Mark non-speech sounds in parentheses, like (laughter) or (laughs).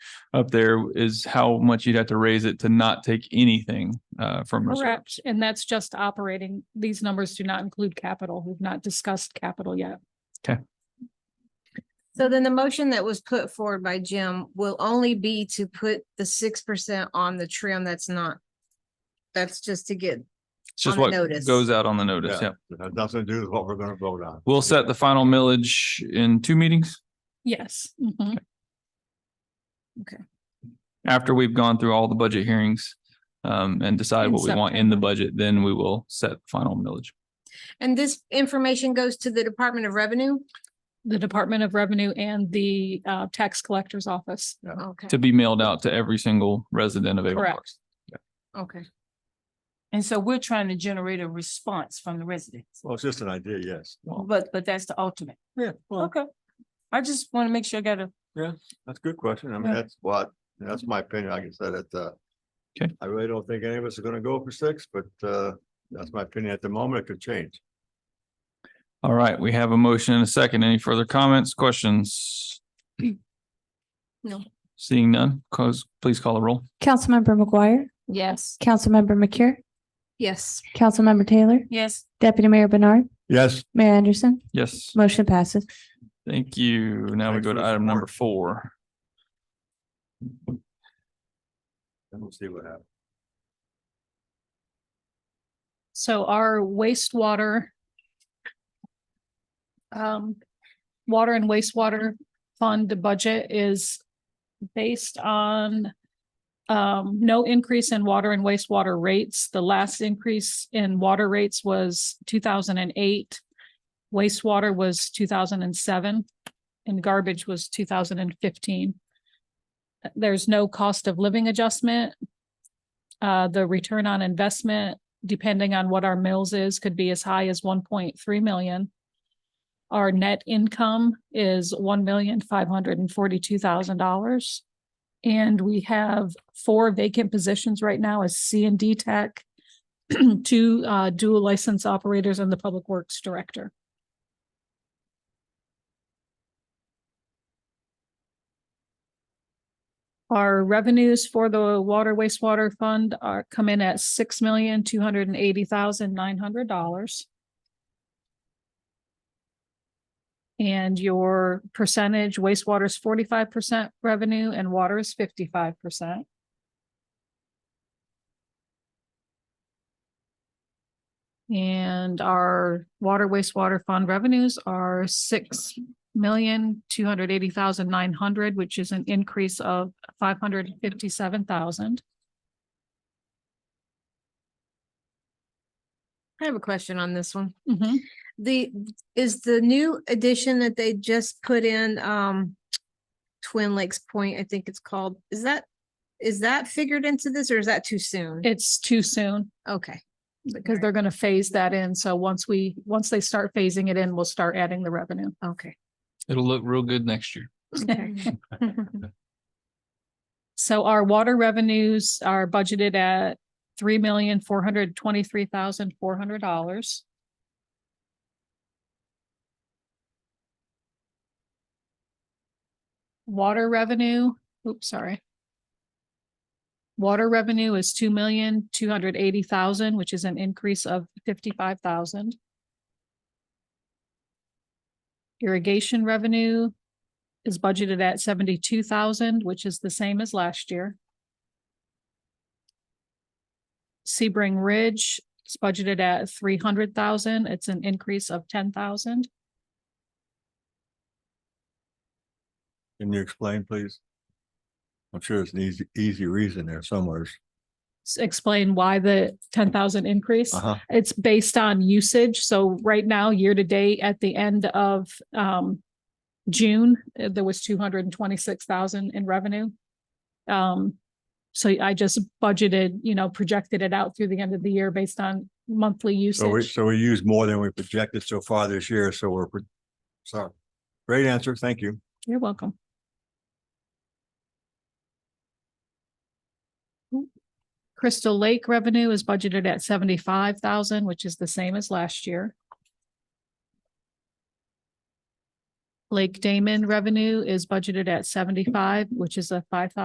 up there is how much you'd have to raise it to not take anything uh from reserve. Correct, and that's just operating. These numbers do not include capital. We've not discussed capital yet. So then the motion that was put forward by Jim will only be to put the six percent on the trim that's not. That's just to get, It's just on the what notice. goes out on the notice. Yeah. Yeah. It has nothing to do with what we're gonna vote on. We'll set the final millage in two meetings Yes. mhm. after we've gone through all the budget hearings um and decide In what we want in the September. budget, then we will set final millage. and this information goes to the Department of Revenue? The Department of Revenue and the uh Tax Collector's Office. Okay, to be mailed out to every single resident of Avon Correct. Park. okay. And so we're trying to generate a response from the residents, Well, it's just an idea, yes. but, but that's the ultimate. Yeah, well, Okay. I just want to make sure I got a, that's a good question. I mean, Yeah. that's what, that's my opinion. Like I said, it, uh. Okay. I really don't think any of us are gonna go for six, but, uh, that's my opinion at the moment. It could change. All right, we have a motion and a second. Any further comments, questions? No. Seeing none, cause please call the roll. Councilmember McGuire, Yes. Councilmember McCure, Yes. Councilmember Taylor, yes, Deputy Mayor Bernard, Yes. Mayor Anderson, Yes, motion passes. thank you. Now we Thanks go for to the item support. number four. And we'll see what happens. So our wastewater um, water and wastewater fund budget is based on um, no increase in water and wastewater rates. The last increase in water rates was two thousand and eight. Wastewater was two thousand and seven and garbage was two thousand and fifteen. There's no cost of living adjustment. Uh, the return on investment depending on what our mills is, could be as high as one point three million. Our net income is one million five hundred and forty-two thousand dollars. And we have four vacant positions right now as C and D tech, (clears throat) two uh, dual license operators and the public works director. Our revenues for the water wastewater fund are come in at six million, two hundred and eighty thousand, nine hundred dollars. And your percentage wastewater is forty-five percent revenue and water is fifty-five percent. And our water wastewater fund revenues are six million, two hundred eighty thousand, nine hundred, which is an increase of five hundred and fifty-seven thousand. I have a question on this one. The, is the new addition that they just put in, um, Twin Lakes Point, I think it's called, is that, is that figured into this or is that too soon? It's too soon Okay. because they're gonna phase that in. So once we, once they start phasing it in, we'll start adding the revenue. Okay. It'll look real good next year. (laughs) So our water revenues are budgeted at three million, four hundred twenty-three thousand, four hundred dollars. Water revenue, oops, sorry. Water revenue is two million, two hundred eighty thousand, which is an increase of fifty-five thousand. Irrigation revenue is budgeted at seventy-two thousand, which is the same as last year. Sebring Ridge is budgeted at three hundred thousand. It's an increase of ten thousand. Can you explain, please? I'm sure it's an easy, easy reason there somewhere. Explain why the ten thousand increase. Uh-huh. It's based on usage. So right now, year to date, at the end of um June, uh, there was two hundred and twenty-six thousand in revenue. Um, so I just budgeted, you know, projected it out through the end of the year based on monthly So we, usage. so we use more than we projected so far this year, so we're, pro- sorry. Great answer. Thank you. You're welcome. Crystal Lake revenue is budgeted at seventy-five thousand, which is the same as last year. Lake Damon revenue is budgeted at seventy-five, which is a five thousand.